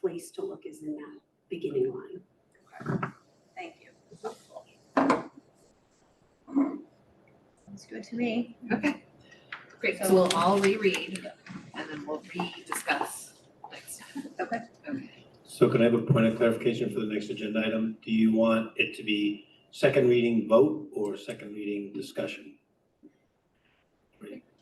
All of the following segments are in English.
place to look is in that beginning line. Thank you. Sounds good to me. Okay. Great, so we'll all reread and then we'll re-discuss next time. Okay. Okay. So can I have a point of clarification for the next agenda item? Do you want it to be second reading vote or second reading discussion?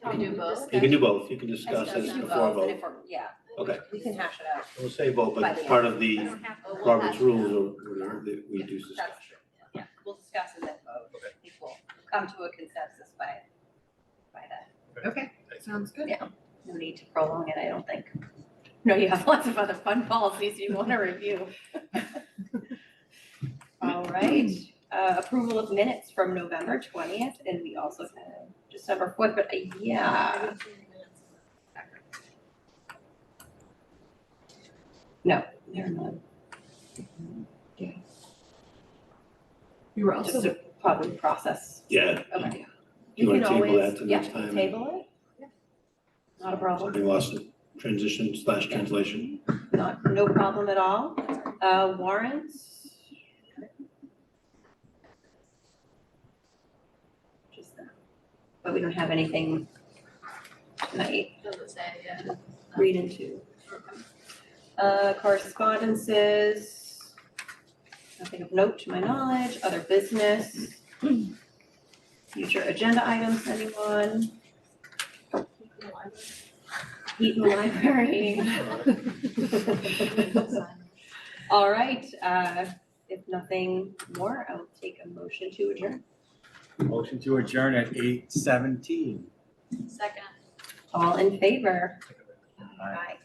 Can we do both? You can do both, you can discuss Discuss this and before a vote, and vote. if we're- Yeah, Okay, we can hash it out. we'll say vote, but But it's yeah. part of the have But we'll Robert's hash it out. rules or whatever that we do discuss. That's true, yeah, we'll discuss and then vote. If we'll come to a consensus by, by that. Okay, sounds good. No need to prolong it, I don't think. No, you have lots of other fun policies you want to review. All right, uh, approval of minutes from November twentieth, and we also have December fourth, but uh, yeah. No, they're not. We were Just also, a probably process. Yeah, Okay. You wanna can table always- that to next time? Yeah, table Yeah. it. Not a problem. we lost the transition slash translation. Not, no problem at all. Uh, warrants? Just that. But we don't have anything tonight doesn't say, yeah. to read into. Uh, correspondences? Nothing of note to my knowledge, other business? Future agenda items, anyone? Heaton Library. All right, uh, if nothing more, I'll take a motion to adjourn. Motion to adjourn at eight seventeen. Second. All in favor? Aye.